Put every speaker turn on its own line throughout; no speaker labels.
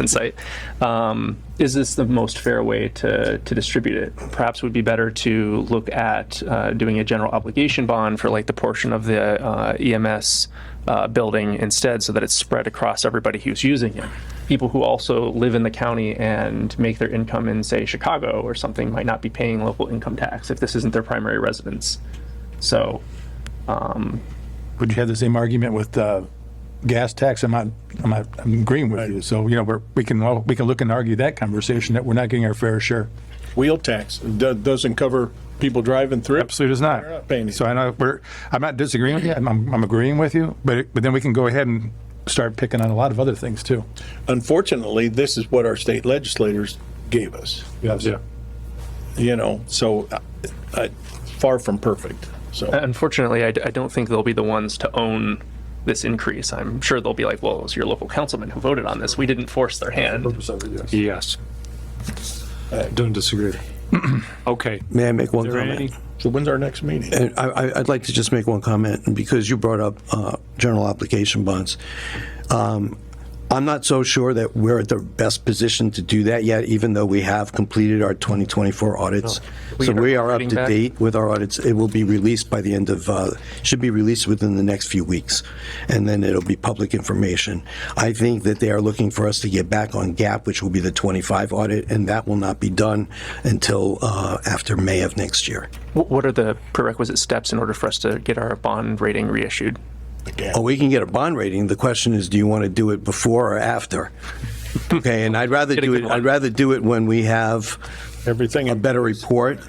insight. Um, is this the most fair way to, to distribute it? Perhaps it would be better to look at uh, doing a general obligation bond for like the portion of the uh, EMS uh, building instead, so that it's spread across everybody who's using it. People who also live in the county and make their income in, say, Chicago or something, might not be paying local income tax if this isn't their primary residence. So, um,
Would you have the same argument with uh, gas tax? I'm not, I'm not I'm agreeing with you. So, you know, we're, we can, all- we can look and argue that conversation, that we're not getting our fair share.
Wheel tax do- doesn't cover people driving through.
Absolutely does
They're not paying
not.
it.
So I know, we're, I'm not disagreeing with you, I'm, I'm I'm agreeing with you, but, it- but then we can go ahead and start picking on a lot of other things too.
Unfortunately, this is what our state legislators gave us,
Yeah.
you know, so uh, uh, far from perfect. So
Uh, Unfortunately, I, d- I don't think they'll be the ones to own this increase. I'm sure they'll be like, well, it was your local councilman who voted on this. We didn't force their hand.
Yes.
Uh,
Don't disagree. Okay.
May I make one
Is there any-
comment?
so when's our next meeting?
And I, I- I'd like to just make one comment, and because you brought up uh, general obligation bonds. um, I'm not so sure that we're at the best position to do that yet, even though we have completed our 2024 audits.
We
So
get our
we are up
auditing
to
back?
date with our audits. It will be released by the end of, uh, should be released within the next few weeks, and then it'll be public information. I think that they are looking for us to get back on gap, which will be the 25 audit, and that will not be done until uh, after May of next year.
Wh- What are the prerequisite steps in order for us to get our bond rating reissued?
Oh, we can get a bond rating. The question is, do you want to do it before or after? Okay, and I'd rather
Get a
do
good
it,
one.
I'd rather do it when we have
Everything.
a better report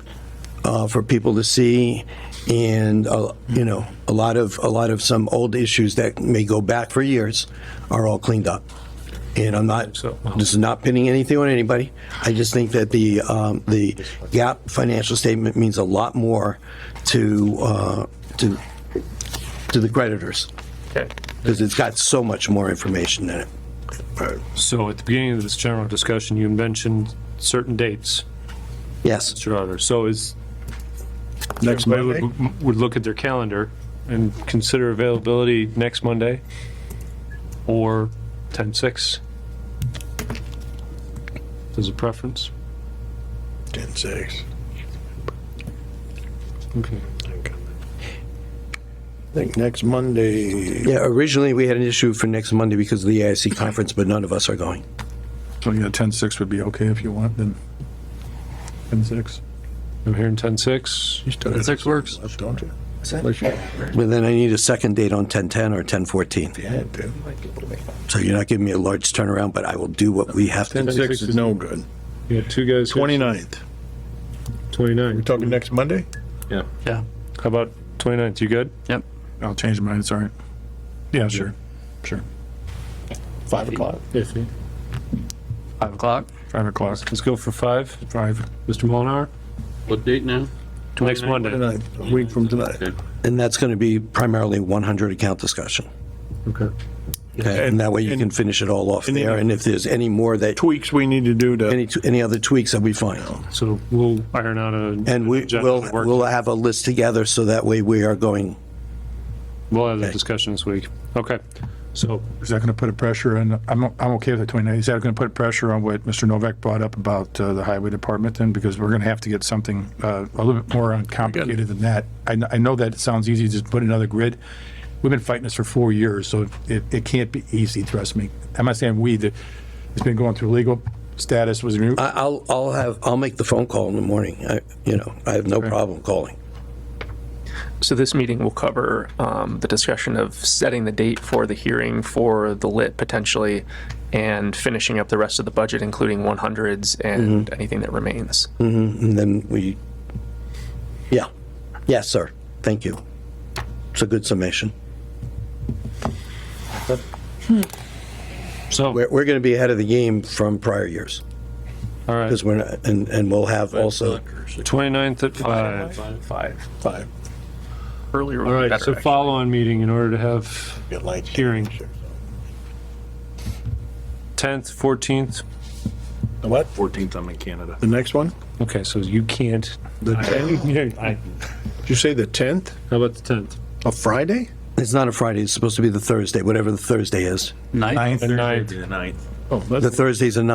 uh, for people to see and, uh, you know, a lot of, a lot of some old issues that may go back for years are all cleaned up. And I'm not, this is not pinning anything on anybody. I just think that the, um, the gap financial statement means a lot more to, uh, to, to the creditors
Okay.
because it's got so much more information in it.
So at the beginning of this general discussion, you mentioned certain dates,
Yes.
Mr. Honor. So is,
Next
everybody
Monday?
would, would look at their calendar and consider availability next Monday or 10-6? As a preference?
10-6.
Okay.
I think next Monday,
Yeah, originally, we had an issue for next Monday because of the AIC conference, but none of us are going.
So, yeah, 10-6 would be okay if you want, then 10-6.
I'm hearing 10-6.
you still have
Six works.
left, don't you? Unless you
But then I need a second date on 1010 or 1014.
had to.
So you're not giving me a large turnaround, but I will do what we have to. do.
10-6 is no good.
You got two guys. here.
29th.
29.
We're talking next Monday?
How about 29th? You good?
I'll change mine, sorry. Yeah, sure, sure.
5 o'clock?
Five o'clock?
5 o'clock,
Let's go for 5.
5.
Mr. Molinar?
What date now?
Next Monday.
Tonight, a week from tonight.
And that's going to be primarily 100 account discussion.
Okay.
Okay, And that way you
And-
can finish it all off
and the-
there. And if there's any more that,
Tweaks we need to do to,
any, any other tweaks, that'll be fine.
So we'll iron out a.
And we
agenda
will,
to work.
we'll have a list together, so that way we are going,
We'll have that
Okay.
discussion this week. Okay. So
Is that going to put a pressure on, I'm, I'm okay with the 29th. Is that going to put pressure on what Mr. Novak brought up about uh, the highway department then? Because we're going to have to get something uh, a little bit more complicated than that. I, kn- I know that it sounds easy, just put another grid. We've been fighting this for four years, so it, it can't be easy, trust me. I'm not saying we, the- it's been going through legal status, was, re-
I- I'll, I'll have, I'll make the phone call in the morning. I, you know, I have no problem calling.
So this meeting will cover um, the discussion of setting the date for the hearing for the lit potentially and finishing up the rest of the budget, including 100s and
Mm-hmm.
anything that remains.
And then we, yeah, yes, sir, thank you. It's a good summation.
So,
We're, we're going to be ahead of the game from prior years,
all right,
because we're, not- and, and we'll have also,
29th at 5.
Five.
5.
Earlier
All
would be
right,
better.
so
actually.
follow-on meeting in order to have
Get lights.
Hearing. 10th, 14th.
The What?
14th, I'm in Canada.
The next one?
Okay, so you can't.
The
I-
10th?
I-
Did you say the 10th
How about the 10th?
of Friday?
it's not a Friday, it's supposed to be the Thursday, whatever the Thursday is.
Ninth?
ninth,
The 9th.
The ninth.
Oh, that's
The Thursday's a